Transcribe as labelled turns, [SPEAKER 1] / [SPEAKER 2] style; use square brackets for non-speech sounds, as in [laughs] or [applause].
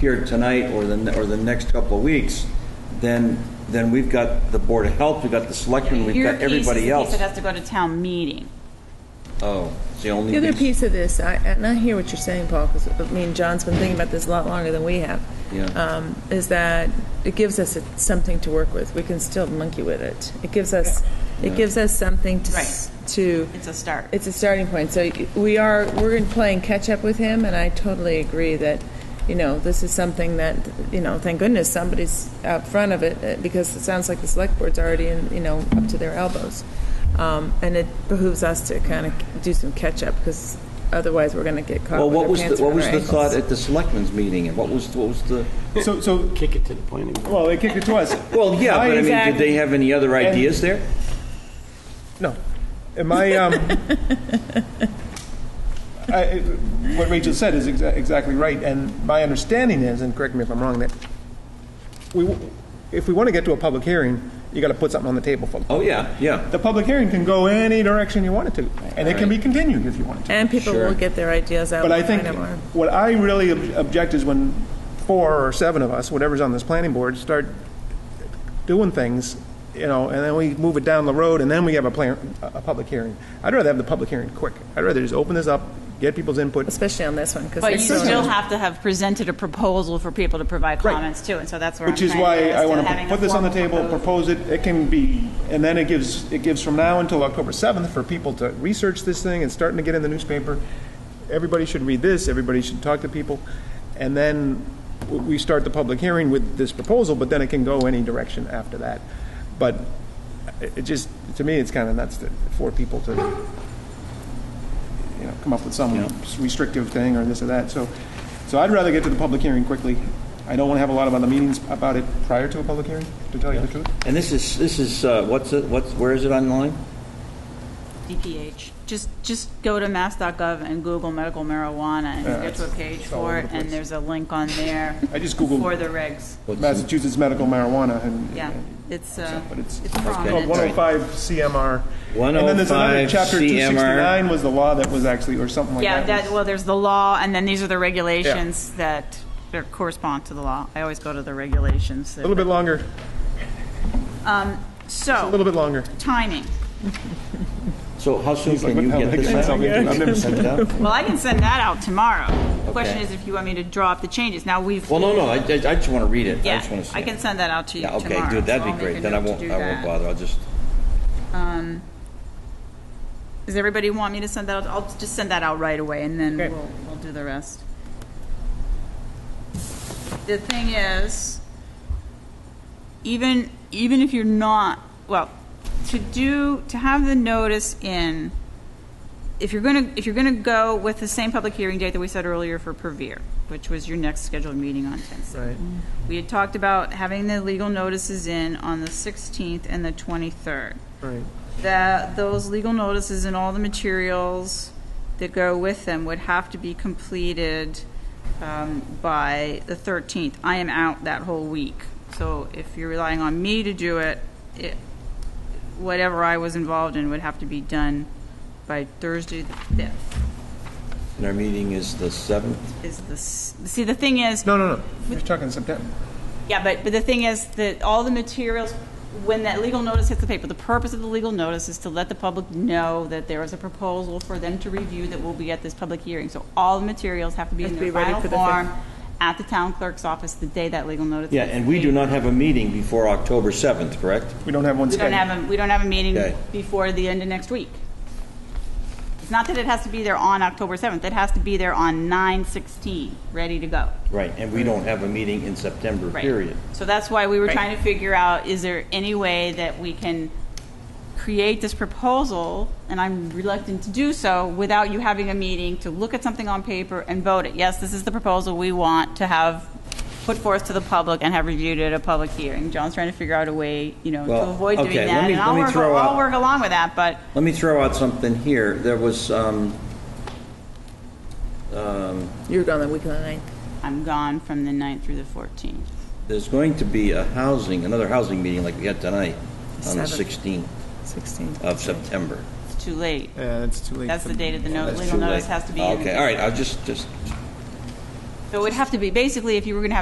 [SPEAKER 1] here tonight or the, or the next couple of weeks, then, then we've got the Board of Health, we've got the Selectmen, we've
[SPEAKER 2] Your
[SPEAKER 1] got
[SPEAKER 2] piece is the
[SPEAKER 1] everybody
[SPEAKER 2] piece
[SPEAKER 1] else.
[SPEAKER 2] that has to go to town meeting.
[SPEAKER 1] Oh, it's the only
[SPEAKER 3] The other
[SPEAKER 1] piece.
[SPEAKER 3] piece of this, I, and I hear what you're saying, Paul, because I mean, John's been thinking about this a lot longer than we have.
[SPEAKER 1] Yeah.
[SPEAKER 3] Um, is that it gives us a, something to work with. We can still monkey with it. It gives us, it gives us something to s- to.
[SPEAKER 2] It's a start.
[SPEAKER 3] It's a starting point. So y- we are we're in playing catch up with him, and I totally agree that. You know, this is something that you know. Thank goodness somebody's out front of it uh, because it sounds like the select board's already in, you know, up to their elbows, um, and it behooves us to kind of do some catch up because otherwise we're going to get caught.
[SPEAKER 1] Well,
[SPEAKER 3] with
[SPEAKER 1] what
[SPEAKER 3] our
[SPEAKER 1] was, the-
[SPEAKER 3] pants
[SPEAKER 1] what
[SPEAKER 3] around
[SPEAKER 1] was
[SPEAKER 3] our
[SPEAKER 1] the
[SPEAKER 3] ankles.
[SPEAKER 1] thought at the Selectmen's meeting, and what was, what was the,
[SPEAKER 4] So, so,
[SPEAKER 5] Kick it to the planning board.
[SPEAKER 4] well, they kicked it to us.
[SPEAKER 1] well, yeah, but I mean, did
[SPEAKER 3] Exactly.
[SPEAKER 1] they have any other ideas there?
[SPEAKER 4] No. Am I, um, I, I- what Rachel said is exa- exactly right, and my understanding is, and correct me if I'm wrong, that we, w- if we want to get to a public hearing, you got to put something on the table for them.
[SPEAKER 1] Oh, yeah, yeah.
[SPEAKER 4] The public hearing can go any direction you want it to, and it can be continued if you want it to.
[SPEAKER 3] And people
[SPEAKER 1] Sure.
[SPEAKER 3] will get their ideas out.
[SPEAKER 4] But I
[SPEAKER 3] and
[SPEAKER 4] think
[SPEAKER 3] find out more.
[SPEAKER 4] what I really ob- object is when four or seven of us, whatever's on this planning board, start doing things, you know, and then we move it down the road, and then we have a plan, a a public hearing. I'd rather have the public hearing quick. I'd rather just open this up, get people's input.
[SPEAKER 3] especially on this one, because
[SPEAKER 2] But you still have to have presented a proposal for people to provide
[SPEAKER 4] Right.
[SPEAKER 2] comments to, and so that's where I'm
[SPEAKER 4] Which is
[SPEAKER 2] trying to
[SPEAKER 4] why
[SPEAKER 2] get us
[SPEAKER 4] I want to
[SPEAKER 2] having a
[SPEAKER 4] put this on the
[SPEAKER 2] formal
[SPEAKER 4] table,
[SPEAKER 2] proposal.
[SPEAKER 4] propose it, it can be, and then it gives, it gives from now until October 7th for people to research this thing, it's starting to get in the newspaper. Everybody should read this, everybody should talk to people, and then w- we start the public hearing with this proposal, but then it can go any direction after that. But it it just, to me, it's kind of nuts that for people to, you know, come up with some restrictive thing or this or that, so, so I'd rather get to the public hearing quickly. I don't want to have a lot of other meetings about it prior to a public hearing, to tell you the truth.
[SPEAKER 1] And this is, this is, uh, what's it, what's, where is it online?
[SPEAKER 2] DPH. Just, just go to mass.gov and Google medical marijuana and you get to a page
[SPEAKER 4] all over
[SPEAKER 2] for it,
[SPEAKER 4] the
[SPEAKER 2] and
[SPEAKER 4] place.
[SPEAKER 2] there's a link on there
[SPEAKER 4] [laughs] I just
[SPEAKER 2] for
[SPEAKER 4] Googled
[SPEAKER 2] the regs.
[SPEAKER 4] Massachusetts medical marijuana and. oh
[SPEAKER 2] Yeah, it's, uh,
[SPEAKER 4] But it's-
[SPEAKER 2] it's
[SPEAKER 4] Called
[SPEAKER 2] prominent.
[SPEAKER 4] 105 CMR. And then there's another
[SPEAKER 1] 105
[SPEAKER 4] chapter
[SPEAKER 1] CMR.
[SPEAKER 4] 269 was the law that was actually, or something like
[SPEAKER 2] Yeah,
[SPEAKER 4] that.
[SPEAKER 2] that,
[SPEAKER 4] was-
[SPEAKER 2] well, there's the law, and then these are the regulations that are- correspond to the law. I always go to the regulations.
[SPEAKER 4] A little bit longer, a
[SPEAKER 2] So,
[SPEAKER 4] little bit longer.
[SPEAKER 2] timing.
[SPEAKER 1] So how soon
[SPEAKER 4] like,
[SPEAKER 1] can you
[SPEAKER 4] "What the
[SPEAKER 1] get
[SPEAKER 4] hell did I get
[SPEAKER 1] this out?
[SPEAKER 4] myself into? I've never seen
[SPEAKER 1] Send it out?
[SPEAKER 2] Well, I can send that out tomorrow. The Question
[SPEAKER 1] Okay.
[SPEAKER 2] is if you want me to draw up the changes. Now, we've.
[SPEAKER 1] Well, no, no, I, I I just want to read it. I
[SPEAKER 2] Yeah,
[SPEAKER 1] just want to see
[SPEAKER 2] I
[SPEAKER 1] it.
[SPEAKER 2] can send that out to you
[SPEAKER 1] Yeah,
[SPEAKER 2] tomorrow.
[SPEAKER 1] okay, dude,
[SPEAKER 2] so
[SPEAKER 1] that'd
[SPEAKER 2] I'll
[SPEAKER 1] be
[SPEAKER 2] make a
[SPEAKER 1] great. Then I
[SPEAKER 2] note to
[SPEAKER 1] won't,
[SPEAKER 2] do
[SPEAKER 1] I won't
[SPEAKER 2] that.
[SPEAKER 1] bother. I'll just,
[SPEAKER 2] Does everybody want me to send that out? I'll just send that out right away, and then we'll, we'll do the rest. The thing is, even, even if you're not, well, to do, to have the notice in, if you're gonna, if you're gonna go with the same public hearing date that we said earlier for Purveer, which was your next scheduled meeting on 10th. Right. We had talked about having the legal notices in on the 16th and the 23rd
[SPEAKER 4] Right.
[SPEAKER 2] that those legal notices and all the materials that go with them would have to be completed um, by the 13th. I am out that whole week. So if you're relying on me to do it, it, whatever I was involved in would have to be done by Thursday the 5th.
[SPEAKER 1] and our meeting is the 7th.
[SPEAKER 2] Is this, see, the thing is,
[SPEAKER 4] No, no, no, we're talking September.
[SPEAKER 2] Yeah, but, but the thing is that all the materials, when that legal notice hits the paper, the purpose of the legal notice is to let the public know that there is a proposal for them to review that will be at this public hearing. So all the materials have to be
[SPEAKER 3] Have
[SPEAKER 2] in
[SPEAKER 3] to
[SPEAKER 2] their
[SPEAKER 3] be ready
[SPEAKER 2] final
[SPEAKER 3] for the
[SPEAKER 2] form at the town clerk's office the day that legal notice.
[SPEAKER 1] Yeah,
[SPEAKER 2] hits
[SPEAKER 1] and
[SPEAKER 2] the
[SPEAKER 1] we do
[SPEAKER 2] paper.
[SPEAKER 1] not have a meeting before October 7th, correct?
[SPEAKER 4] We don't have one
[SPEAKER 2] We don't
[SPEAKER 4] scheduled.
[SPEAKER 2] have a, we don't have a meeting
[SPEAKER 1] Okay.
[SPEAKER 2] before the end of next week. It's not that it has to be there on October 7th, it has to be there on 9/16, ready to go.
[SPEAKER 1] Right, and we don't have a meeting in September,
[SPEAKER 2] Right.
[SPEAKER 1] period.
[SPEAKER 2] So that's why we were trying to figure out, is there any way that we can create this proposal, and I'm reluctant to do so, without you having a meeting to look at something on paper and vote it? Yes, this is the proposal we want to have put forth to the public and have reviewed at a public hearing. John's trying to figure out a way, you know, to
[SPEAKER 1] Well,
[SPEAKER 2] avoid doing
[SPEAKER 1] okay, let
[SPEAKER 2] that.
[SPEAKER 1] me-
[SPEAKER 2] And
[SPEAKER 1] let
[SPEAKER 2] I'll
[SPEAKER 1] me
[SPEAKER 2] work,
[SPEAKER 1] throw out-
[SPEAKER 2] I'll work along with that, but
[SPEAKER 1] Let me throw out something here. There was, um,
[SPEAKER 3] You're gone the week of the ninth.
[SPEAKER 2] I'm gone from the 9th through the 14th.
[SPEAKER 1] there's going to be a housing, another housing meeting like we had tonight on the
[SPEAKER 3] Seventh.
[SPEAKER 1] 16th
[SPEAKER 3] 16.
[SPEAKER 1] of September.
[SPEAKER 2] It's too late.
[SPEAKER 4] Yeah, it's too late.
[SPEAKER 2] That's
[SPEAKER 4] for-
[SPEAKER 2] the date of the no-
[SPEAKER 1] That's
[SPEAKER 2] legal
[SPEAKER 1] too
[SPEAKER 2] notice
[SPEAKER 1] late.
[SPEAKER 2] has to be in.
[SPEAKER 1] Okay, all right, I'll just, just,
[SPEAKER 2] So it would have to be, basically, if you were going to have